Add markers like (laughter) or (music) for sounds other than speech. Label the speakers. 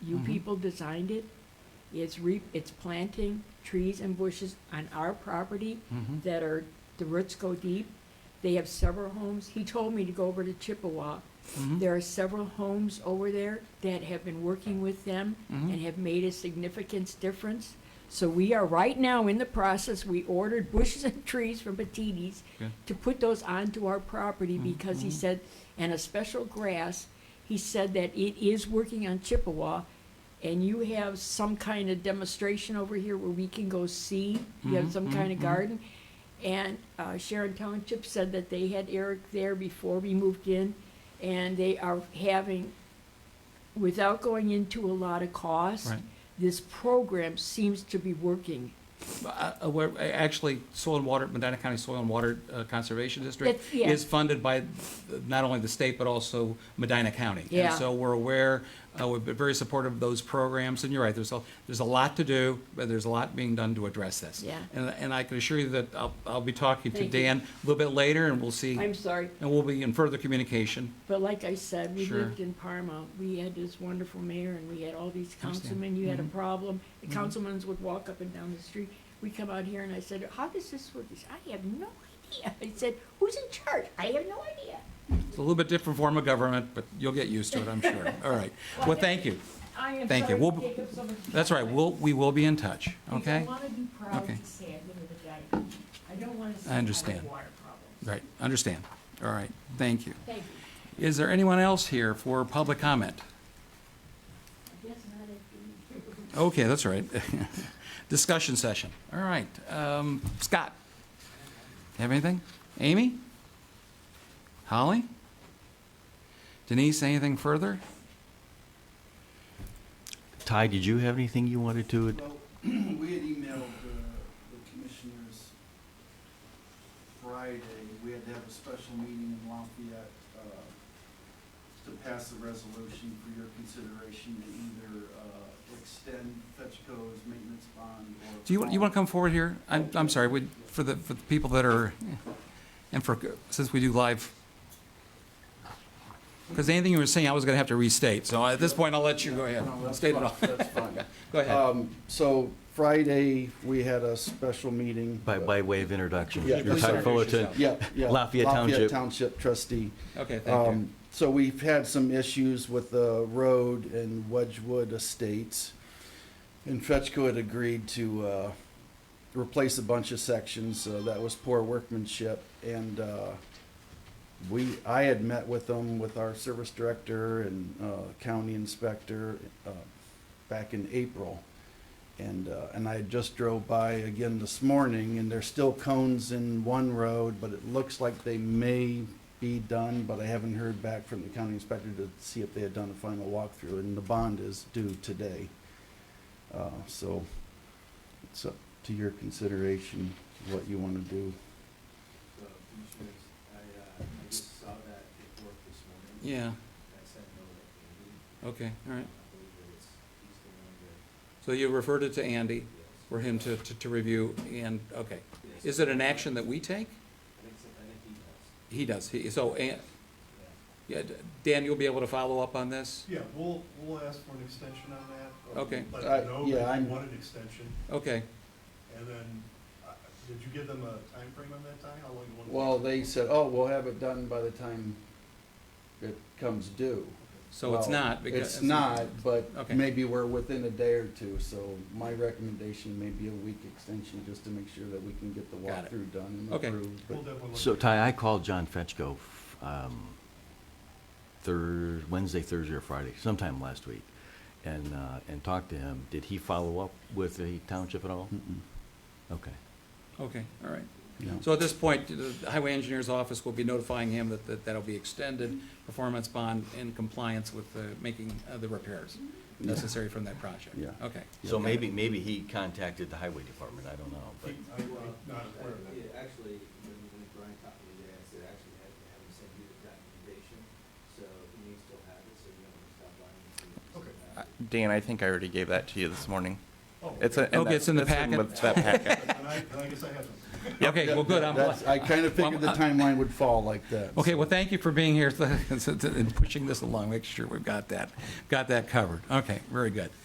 Speaker 1: You people designed it. It's re, it's planting trees and bushes on our property
Speaker 2: Mhm.
Speaker 1: that are, the roots go deep. They have several homes. He told me to go over to Chippewa.
Speaker 2: Mhm.
Speaker 1: There are several homes over there that have been working with them and have made a significant difference. So we are right now in the process, we ordered bushes and trees from Petites
Speaker 2: Good.
Speaker 1: to put those onto our property because he
Speaker 2: Mhm.
Speaker 1: said, and a special grass, he said that it is working on Chippewa. And you have some kind of demonstration over here where we can go see, you have
Speaker 2: Mhm,
Speaker 1: some kind of
Speaker 2: mhm, mhm.
Speaker 1: garden. And uh, Sharon Township said that they had Eric there before we moved in, and they are having, without going into a lot of cost,
Speaker 2: Right.
Speaker 1: this program seems to be working.
Speaker 2: Uh, uh, where- uh, Actually, Soil and Water, Medina County Soil and Water uh, Conservation District
Speaker 1: That's- yeah.
Speaker 2: is funded by th- not only the state, but also Medina County.
Speaker 1: Yeah.
Speaker 2: And so we're aware, uh, we've been very supportive of those programs, and you're right, there's a, there's a lot to do, but there's a lot being done to address this.
Speaker 1: Yeah.
Speaker 2: And, and I can assure you that I'll, I'll be talking to
Speaker 1: Thank you.
Speaker 2: Dan a little bit later, and we'll see,
Speaker 1: I'm
Speaker 2: and
Speaker 1: sorry,
Speaker 2: we'll be in further communication.
Speaker 1: But like I said, we
Speaker 2: Sure.
Speaker 1: lived in Parma. We had this wonderful mayor and we had all these
Speaker 2: understand.
Speaker 1: councilmen. You had a
Speaker 2: Mhm.
Speaker 1: problem. The
Speaker 2: Mhm.
Speaker 1: councilmen would walk up and down the street. We come out here and I said, how does this work? He said, I have no idea. I said, who's in charge? I have no idea.
Speaker 2: It's a little bit different form of government, but you'll get used to it,
Speaker 1: (laughs)
Speaker 2: I'm sure. All right. Well, thank you.
Speaker 1: I am
Speaker 2: Thank you.
Speaker 1: sorry
Speaker 2: We'll-
Speaker 1: to take up so much.
Speaker 2: That's right, we'll, we will be in touch,
Speaker 1: Because I
Speaker 2: okay?
Speaker 1: want to be proud
Speaker 2: Okay.
Speaker 1: to say I live with a guy. I don't want to say I have
Speaker 2: understand.
Speaker 1: water problems.
Speaker 2: Right, understand. All right, thank you.
Speaker 1: Thank you.
Speaker 2: Is there anyone else here for public comment?
Speaker 1: I guess not at the.
Speaker 2: Okay, that's all right. (laughs) Discussion session. All right, um, Scott? Have anything? Amy? Holly? Denise, anything further?
Speaker 3: Ty, did you have anything you wanted to? add?
Speaker 4: Well, (clears throat) we had emailed uh, the commissioners Friday. We had to have a special meeting in Lafayette uh, to pass a resolution for your consideration to either uh, extend FetchCo's maintenance bond or.
Speaker 2: Do you, want- you want to come forward here? I'm, I'm sorry, we- for the, for the people that are, and for, since we do live. Because anything you were saying, I was going to have to restate, so at this point, I'll let you go ahead.
Speaker 4: No, that's
Speaker 2: State it
Speaker 4: fine.
Speaker 2: all.
Speaker 4: That's
Speaker 2: (laughs)
Speaker 4: fine.
Speaker 2: Go ahead.
Speaker 4: Um, So Friday, we had a special meeting.
Speaker 3: By, by way of introduction,
Speaker 4: Yeah,
Speaker 3: you're
Speaker 4: please
Speaker 3: Ty
Speaker 2: introduce
Speaker 3: Fullerton.
Speaker 2: yourself.
Speaker 4: Yeah, yeah.
Speaker 3: Lafayette
Speaker 4: Lafayette
Speaker 3: Township.
Speaker 4: Township trustee.
Speaker 2: Okay, thank you.
Speaker 4: Um, so we've had some issues with the road and Wedgewood Estates. And Fetchco had agreed to, uh, replace a bunch of sections, uh, that was poor workmanship. And, uh, we, I had met with them, with our service director and, uh, county inspector, uh, back in April. And, uh, and I just drove by again this morning and there's still cones in one road, but it looks like they may be done, but I haven't heard back from the county inspector to see if they had done a final walkthrough and the bond is due today. Uh, so it's up to your consideration what you want to do.
Speaker 5: So, Commissioners, I, uh, I just saw that report this
Speaker 2: Yeah,
Speaker 5: morning. I sent a note to Andy.
Speaker 2: okay, all right.
Speaker 5: I believe that it's, he's the one that,
Speaker 2: So you referred it to Andy
Speaker 5: yes.
Speaker 2: for him to, to, to review and, okay.
Speaker 5: Yes.
Speaker 2: Is it an action that we take?
Speaker 5: I think, so- I think he does,
Speaker 2: He does, he, so, An-
Speaker 5: yeah.
Speaker 2: yeah, Dan, you'll be able to follow up on this?
Speaker 6: Yeah, we'll, we'll ask for an extension on that.
Speaker 2: Okay.
Speaker 6: Let
Speaker 4: I-
Speaker 6: them know
Speaker 4: Uh, yeah,
Speaker 6: that
Speaker 4: I'm-
Speaker 6: you want an extension,
Speaker 2: Okay,
Speaker 6: and then, uh, did you give them a time frame on that, Ty? How long you want?
Speaker 4: Well, they said, oh, we'll have it done by the time it comes due.
Speaker 2: so it's
Speaker 4: Well,
Speaker 2: not because.
Speaker 4: It's not, but
Speaker 2: Okay.
Speaker 4: maybe we're within a day or two, so my recommendation may be a week extension just to make sure that we can get the
Speaker 2: Got it.
Speaker 4: walkthrough done and
Speaker 2: Okay.
Speaker 4: approved. but-
Speaker 6: We'll definitely look
Speaker 3: So
Speaker 6: at it.
Speaker 3: Ty, I called John Fetchko, um, Thurs, Wednesday, Thursday, or Friday, sometime last week, and, uh, and talked to him. Did he follow up with the township at all?
Speaker 4: Mm-mm,
Speaker 3: Okay.
Speaker 2: Okay, all right.
Speaker 4: no.
Speaker 2: So at this point, the highway engineer's office will be notifying him that, that that'll be extended, performance bond in compliance with, uh, making uh, the repairs necessary from that project.
Speaker 4: Yeah.
Speaker 2: Okay.
Speaker 3: So maybe, maybe he contacted the highway department, I don't know, but.
Speaker 6: He- I'm uh, not aware of that.
Speaker 5: Yeah, actually, when, when Brian talked to me today, I said, actually, have, have him send you the documentation, so he needs to have it, so you don't have to stop by and see. if he's
Speaker 6: Okay.
Speaker 5: got
Speaker 7: Uh,
Speaker 5: it.
Speaker 7: Dan, I think I already gave that to you this morning.
Speaker 6: Oh,
Speaker 7: It's a, and
Speaker 2: Okay, it's in the
Speaker 7: that's- that's
Speaker 2: packet? (laughs)
Speaker 7: with That packet.
Speaker 6: And I, and I guess I haven't.
Speaker 2: Okay, well, good, I'm glad.
Speaker 4: That's- I kind of figured the
Speaker 2: Well, I'm-
Speaker 4: timeline would fall like that.
Speaker 2: Okay, well, thank you for being (laughs) here and pushing this along, make sure we've got that, got that covered. Okay, very good.